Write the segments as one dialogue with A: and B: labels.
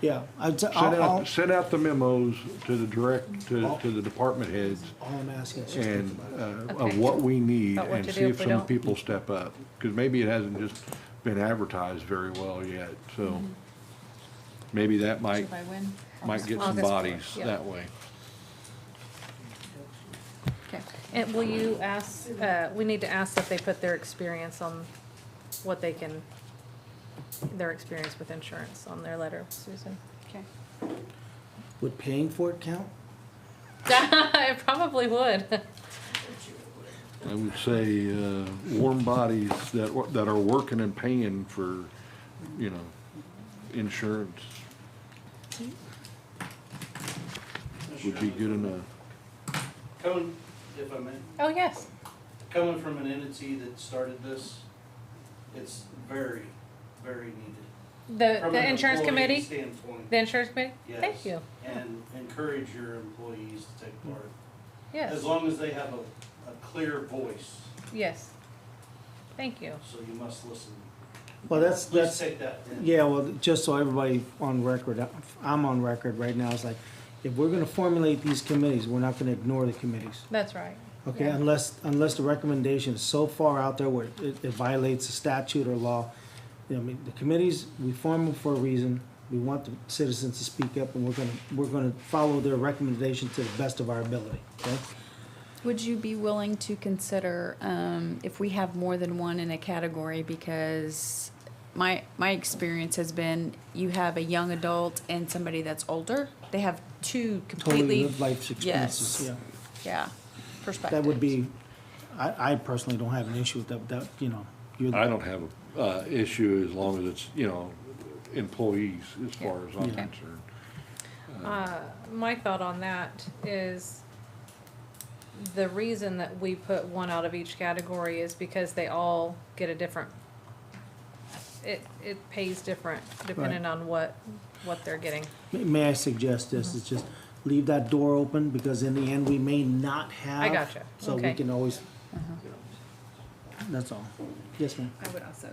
A: Yeah, I'd, t-
B: Send
A: I'll, I'll,
B: out, send out the memos to the direct, to, to the department heads
A: all I'm asking is just think
B: and,
A: about it.
B: uh,
C: Okay.
B: of what we need
C: About what
B: and
C: to
B: see
C: do
B: if
C: if we
B: some
C: don't.
B: people step up. Cause maybe it hasn't just been advertised very well yet,
C: Mm-hmm.
B: so maybe that might,
C: By when?
B: might get some
C: August fourth,
B: bodies
C: yeah.
B: that way.
C: Okay. And will you ask, uh, we need to ask if they put their experience on what they can, their experience with insurance on their letter, Susan?
D: Okay.
A: Would paying for it count?
C: It probably would.
B: I would say, uh, warm bodies that, wa- that are working and paying for, you know, insurance would be good enough.
E: Coming, if I may,
C: Oh, yes.
E: coming from an entity that started this, it's very, very needed.
C: The,
E: From
C: the
E: an
C: insurance
E: employee
C: committee,
E: Standpoint,
C: the insurance committee?
E: yes.
C: Thank you.
E: And encourage your employees to take part, as
C: Yes,
E: long as they have a, a clear voice,
C: yes. Thank you.
E: so you must listen.
A: Well, that's,
E: Please
A: that's,
E: take that in.
A: yeah, well, just so everybody on record, I'm on record right now, it's like, if we're gonna formulate these committees, we're not gonna ignore the committees.
C: That's right.
A: Okay,
C: Yeah.
A: unless, unless the recommendation is so far out there where it it violates a statute or law. You know, I mean, the committees, we form them for a reason. We want the citizens to speak up and we're gonna, we're gonna follow their recommendation to the best of our ability, okay?
D: Would you be willing to consider, um, if we have more than one in a category, because my, my experience has been, you have a young adult and somebody that's older, they have two
A: Totally
D: completely,
A: lived life experiences,
D: yes.
A: yeah.
D: yeah, perspectives.
A: That would be, I, I personally don't have an issue with that, that, you know, you're,
B: I don't have a, uh, issue as long as it's, you know, employees as far as I'm
D: Okay.
B: concerned.
C: Uh, my thought on that is the reason that we put one out of each category is because they all get a different, it, it pays different depending on what, what they're getting.
A: May- May I suggest
C: Mm-hmm.
A: this, is just leave that door open, because in the end, we may not have.
C: I gotcha.
A: So we
C: Okay. Uh-huh.
A: can always, that's all. Yes, ma'am.
F: I would also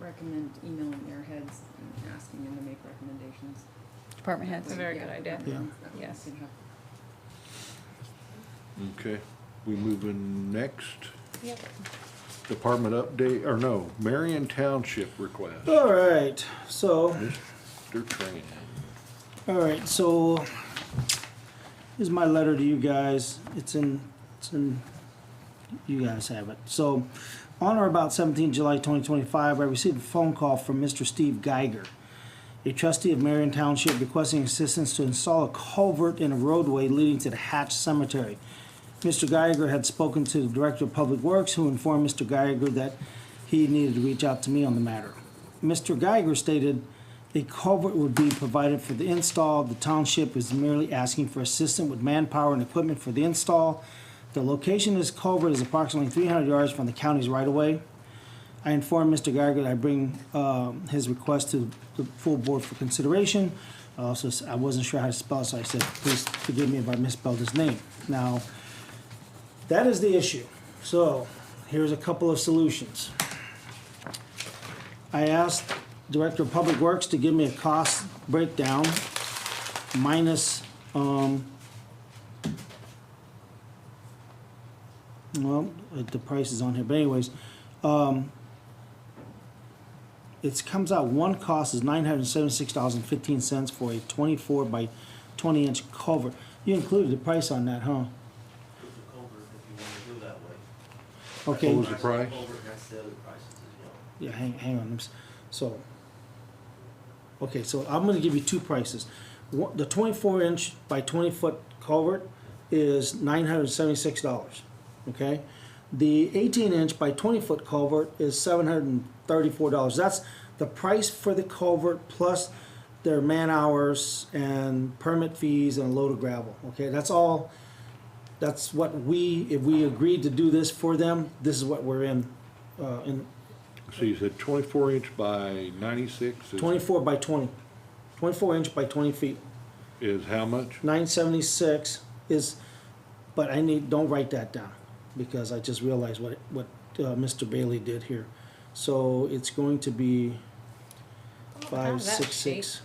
F: recommend emailing airheads and asking them to make recommendations.
D: Department heads.
C: That's a very good
F: Yeah,
C: idea.
F: that one's- that
C: Yes.
F: one's gonna
B: Okay, we moving next,
C: Yep.
B: department update, or no, Marion Township request,
A: All right, so,
B: they're training.
A: all right, so, this is my letter to you guys. It's in, it's in, you guys have it. So, on or about 17 July 2025, I received a phone call from Mr. Steve Geiger, a trustee of Marion Township requesting assistance to install a culvert in a roadway leading to the Hatch Cemetery. Mr. Geiger had spoken to the Director of Public Works, who informed Mr. Geiger that he needed to reach out to me on the matter. Mr. Geiger stated a culvert would be provided for the install. The township is merely asking for assistance with manpower and equipment for the install. The location of this culvert is approximately 300 yards from the county's right-of-way. I informed Mr. Geiger that I bring um, his request to the full board for consideration. I Also, s- I wasn't sure how to spell, it, so I said, please forgive me if I misspelled his name. Now, that is the issue. So, here's a couple of solutions. I asked Director of Public Works to give me a cost breakdown minus, um, well, uh, the price is on here, but anyways, um, it comes out, one cost is nine hundred and seventy-six dollars and fifteen cents for a twenty-four by twenty inch culvert. You included the price on that, huh?
G: with the culvert if you want to do that way.
A: Okay.
B: What was the price?
G: Culvert, that's the other prices as well.
A: Yeah, hang, hang on. let me s- So, okay, so I'm gonna give you two prices. One, the twenty-four inch by twenty foot culvert is nine hundred seventy-six dollars, okay? The eighteen inch by twenty foot culvert is seven hundred and thirty-four dollars. That's the price for the culvert plus their man hours and permit fees and a load of gravel, okay? That's all, that's what we, if we agreed to do this for them, this is what we're in, uh, in,
B: So you said twenty-four inch by ninety-six is-
A: 24 by 20, 24 inch by 20 feet.
B: is how much?
A: 976 is, but I need, don't write that down, because I just realized what, what uh, Mr. Bailey did here. So it's going to be
C: I have
A: five
C: that
A: six
C: sheet.
A: six